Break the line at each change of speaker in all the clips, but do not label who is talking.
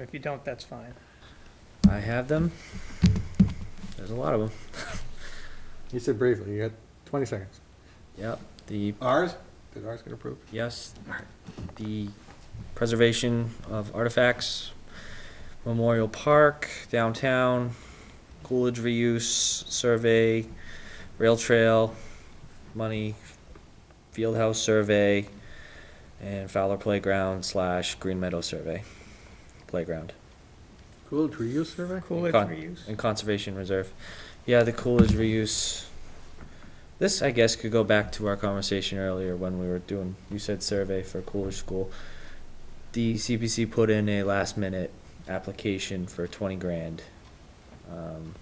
If you don't, that's fine.
I have them. There's a lot of them.
You said briefly, you had 20 seconds.
Yep. The
Ours? Did ours get approved?
yes, the preservation of artifacts, Memorial Park, downtown, Coolidge reuse survey, rail trail, money, field house survey, and Fowler Playground slash Green Meadow survey, playground.
Coolidge reuse survey?
Coolidge
Con-
reuse.
And conservation reserve. Yeah, the Coolidge reuse. This, I guess, could go back to our conversation earlier when we were doing, you said survey for Coolidge School. The CPC put in a last minute application for twenty grand. um,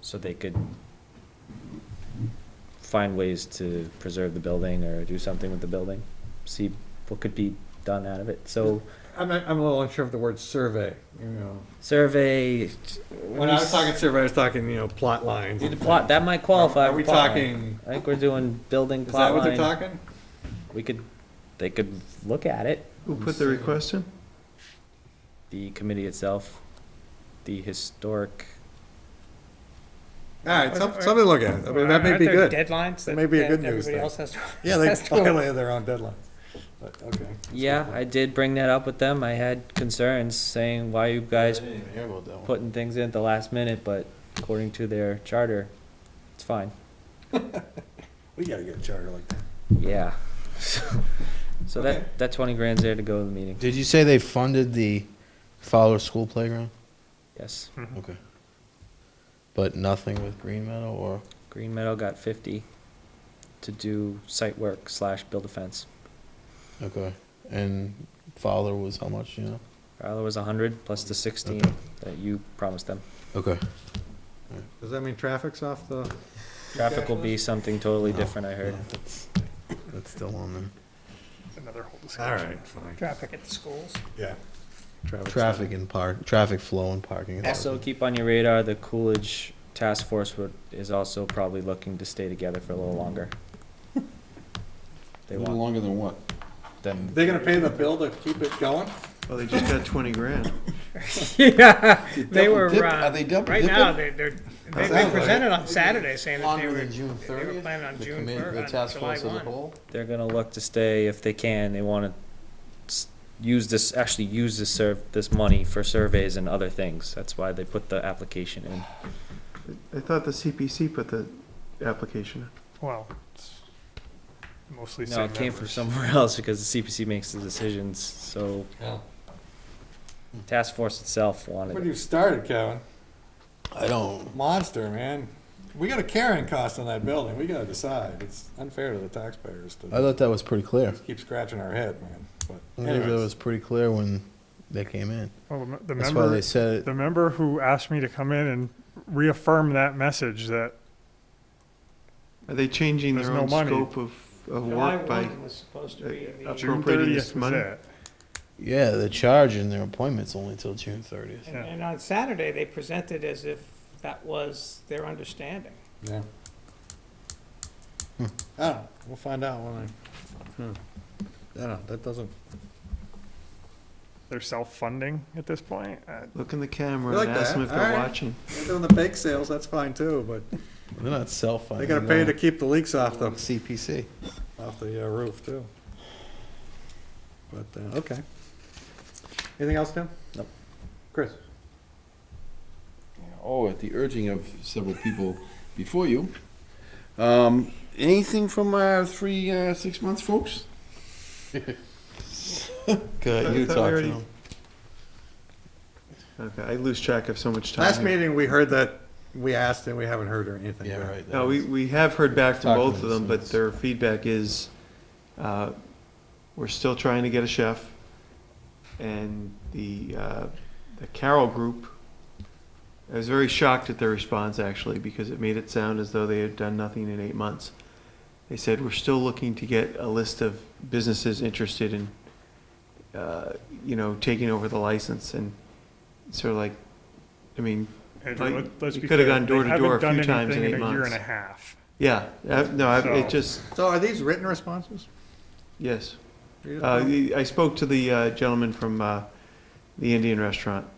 So they could find ways to preserve the building or do something with the building, see what could be done out of it. So
I'm, not- I'm a little unsure of the word survey, you know.
survey.
When I was talking survey, I was talking, you know, plot lines.
Need to plot, that might qualify.
Are we
for plot line.
talking,
I think we're doing building
is that
plot
what they're
line.
talking?
We could, they could look at it,
Who put the request in?
the committee itself, the historic,
All right, some- something to look at. I mean, that may
Aren't
be
there
good.
Deadlines that
That may be a
that
good news
everybody
thing.
else has to.
Yeah, they
has to-
violated their own deadline. But, okay.
yeah, I did bring that up with them. I had concerns saying why you guys putting things in at the last minute, but according to their charter, it's fine.
We gotta get a charter like that.
Yeah. So
Okay.
that, that twenty grand's there to go to the meeting,
Did you say they funded the Fowler School Playground?
yes.
Okay. But nothing with Green Meadow or?
Green Meadow got fifty to do site work slash build a fence.
Okay. And Fowler was how much, you know?
Fowler was a hundred plus the sixteen
Okay.
that you promised them.
Okay.
Does that mean traffic's off the?
Traffic will be something totally
No.
different, I heard.
That's that's still on there.
Another whole
All
discussion.
right, fine.
Traffic at the schools.
Yeah.
Traffic and park, traffic flow and parking.
Also, keep on your radar, the Coolidge Task Force would, is also probably looking to stay together for a little longer. They
A little
want
longer than what?
them.
They're gonna pay the bill to keep it going?
Well, they just got twenty grand.
Yeah, they
double
were,
dip-
uh,
are they double
right
dipping?
now, they- they're, they- they
like
presented on Saturday saying that they
Longer
were,
than June
they were
thirtieth?
planning on June first, on July one.
They're gonna look to stay if they can, they wanna s- use this, actually use this serv, this money for surveys and other things, that's why they put the application in.
I thought the CPC put the application in.
Well, it's mostly
No,
same
it came from
members.
somewhere else because the CPC makes the decisions, so
Yeah.
task force itself wanted
What
it.
do you started, Kevin?
I don't,
Monster, man. We got a carrying cost on that building. We gotta decide. It's unfair to the taxpayers to
I thought that was pretty clear.
keep scratching our head, man.
I
But
think that
anyways,
was pretty clear when they came in.
Well, the mem- the
That's why
member,
they said it.
the member who asked me to come in and reaffirm that message that
Are they changing
There's
their
no
own
money.
scope of, of
July
work by?
one was supposed to
uh,
be the.
appro-
June
Appropriating this
thirtieth was
money?
it.
Yeah, the charge in their appointment's only till June thirtieth.
Yeah.
And and on Saturday, they presented as if that was their understanding.
yeah. Oh, we'll find out when I. Hmm. I don't know, that doesn't.
They're self-funding at this point. Uh,
Look in the camera
Like
and ask them
that,
if they're
alright.
watching.
They're doing the bake sales, that's fine too, but
They're
they
not self-funding.
gotta pay to keep the leaks off the,
CPC.
off the uh, roof too. But, uh, okay. Anything else, Tim?
Nope.
Chris?
Oh, at the urging of several people before you. Um, anything from our three, uh, six months folks?
Good,
I
you
thought we
talk to
already-
them.
Okay, I lose track of so much time.
Last
here.
meeting, we heard that, we asked and we haven't heard or anything.
Yeah,
back.
right.
No, we, we have heard back from
Talk to
both of
them,
them,
so
but
it's-
their feedback is, uh, we're still trying to get a chef. And the, uh, the Carroll Group, I was very shocked at their response actually, because it made it sound as though they had done nothing in eight months. They said, we're still looking to get a list of businesses interested in, uh, you know, taking over the license and sort of like, I mean,
Andrew,
Like,
let- let's
you
be
coulda
clear,
gone door
they
to door
haven't
a few
done
times in
anything
eight
a Year
month.
and a half.
yeah, uh, no, I-
So-
it just,
So are these written responses?
yes.
Read it
Uh,
down.
I spoke to the uh, gentleman from uh, the Indian restaurant. uh,